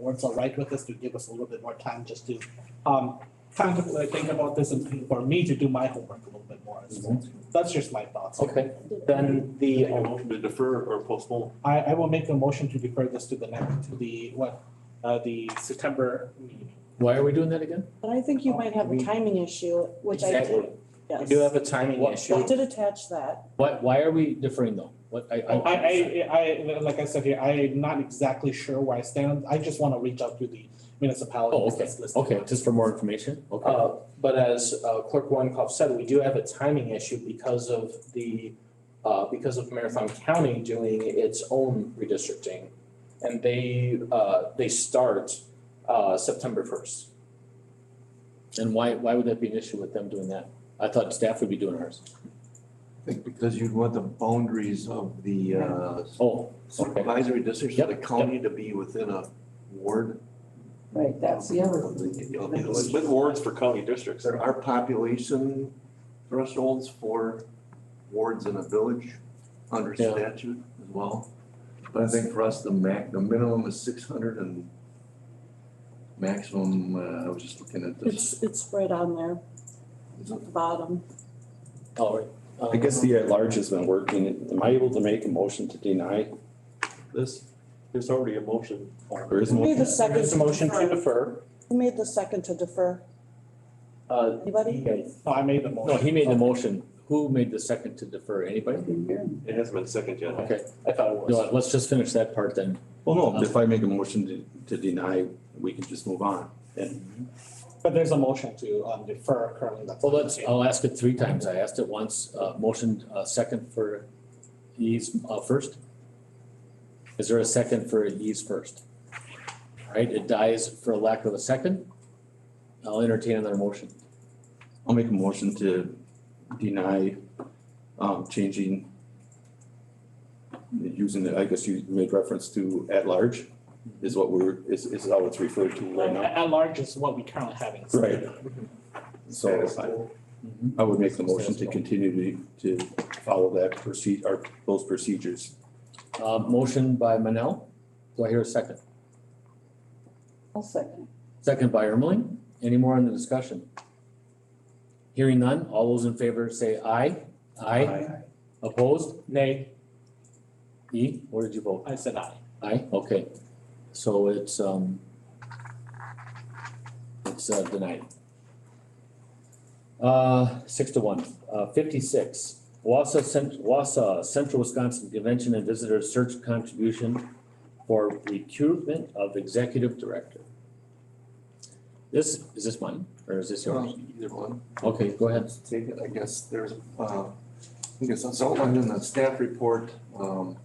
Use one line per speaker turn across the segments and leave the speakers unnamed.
board's all right with this, to give us a little bit more time just to, um, contemplate, think about this and for me to do my homework a little bit more as well. That's just my thoughts.
Mm-hmm. Okay, then the,
Make a motion to defer or postpone.
I, I will make a motion to defer this to the next, to the, what, uh, the September meeting.
why are we doing that again?
But I think you might have a timing issue, which I
Exactly.
do, yes.
Um, We do have a timing
What-
I
issue.
did attach that,
Why, why are we deferring though? What, I,
I,
I.
I, I, like I said here, I am not exactly sure where I stand. I just wanna reach out to the
Oh,
municipalities
okay,
that's listed.
okay, just for more information, okay.
Uh, But as uh, Clerk Weinkoff said, we do have a timing issue because of the, uh, because of Marathon County doing its own redistricting. And they, uh, they start uh, September first.
And why, why would that be an issue with them doing that? I thought staff would be doing ours.
I think because you'd want the boundaries of the uh,
Oh,
supervisory districts of the
Yep, yep.
county to be within a ward.
Right, that's the other.
of the- you know,
With
There
with wards for county districts.
are population thresholds for wards in a village under
Yeah.
statute as well. But I think for us, the max, the minimum is six hundred and maximum, uh, I was just looking at this.
it's, it's right on there,
Is it-
at the bottom.
all right.
I
Um,
guess the at-large has been working. Am I able to make a motion to deny?
This, there's already a motion.
There is
Who
no,
made the second?
There's a motion to
defer?
defer.
Who made the second to defer?
Uh,
Anybody?
No, I made the motion.
No, he made the motion. Who made the second to defer? Anybody?
It hasn't been seconded yet.
Okay,
I thought it was.
no, let's just finish that part then.
well, no, if I make a motion to, to deny, we can just move on. And
But there's a motion to, um, defer currently that's.
Well, let's, uh, I'll ask it three times. I asked it once, uh, motion, uh, second for ease, uh, first. Is there a second for ease first? All right, it dies for lack of a second. I'll entertain another motion.
I'll make a motion to deny, um, changing, using, the I guess you made reference to at-large is what we're, is, is how it's referred to right
At,
now.
at large is what we currently having.
Right. So I,
Mm-hmm.
I would make the motion to continue to, to follow that proceed, or those procedures.
Uh, motion by Manel. Do I hear a second?
I'll second.
Second by Ermeling. Any more on the discussion? Hearing none, all those in favor say aye. Aye. Opposed? Nay. E, what did you vote?
I said aye.
Aye, okay. So it's, um, it's uh, denied. Uh, six to one, uh, fifty-six, Wassa Cent- Wassa Central Wisconsin Convention and Visitor Search Contribution for recruitment of executive director. This, is this mine, or is this yours?
Either one.
Okay, go ahead.
take it, I guess there's, uh, I guess it's outlined in the staff report, um.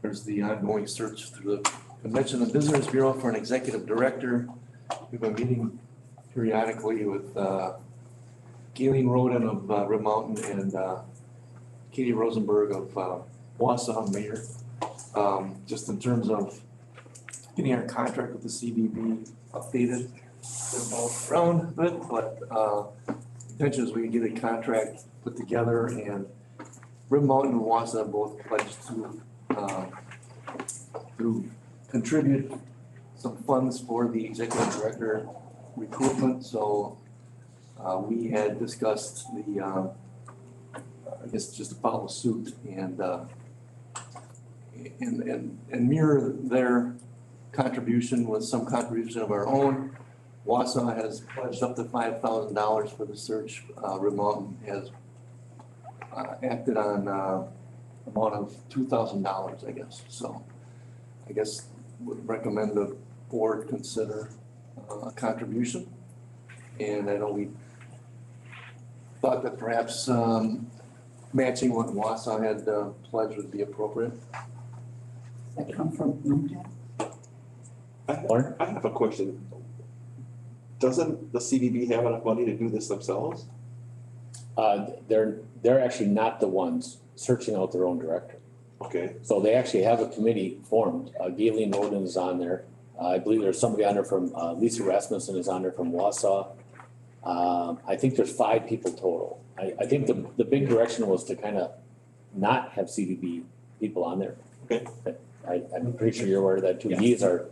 There's the ongoing search through the Convention and Visitors Bureau for an executive director. We've been meeting periodically with, uh, Galen Roden of, uh, Red Mountain and, uh, Katie Rosenberg of, uh, Wausau Mayor. Um, just in terms of getting our contract with the CBB updated they're both around with, but uh intention is we can get a contract put together and Rim Mountain and Wassa both pledged to uh to contribute some funds for the executive director recruitment, so uh we had discussed the um I guess just to follow suit and uh and and and mirror their contribution with some contribution of our own. Wausau has pledged up to five thousand dollars for the search. Uh, Red Mountain has uh, acted on uh, amount of two thousand dollars, I guess. So I guess would recommend the board consider uh, a contribution. And I know we thought that perhaps um, matching what Wausau had uh, pledged would be appropriate.
That come from Bloomington?
Lauren?
I have a question. Doesn't the CDB have enough money to do this themselves?
Uh, they're, they're actually not the ones searching out their own director.
Okay,
So they actually have a committee formed. Uh, Galen Roden is on there. Uh, I believe there's somebody on there from, uh, Lisa Rasmussen is on there from Wausau. Um, I think there's five people total. I, I think the, the big direction was to kind of not have CDB people on there.
Okay.
But I, I'm pretty sure you're aware of that too. He is our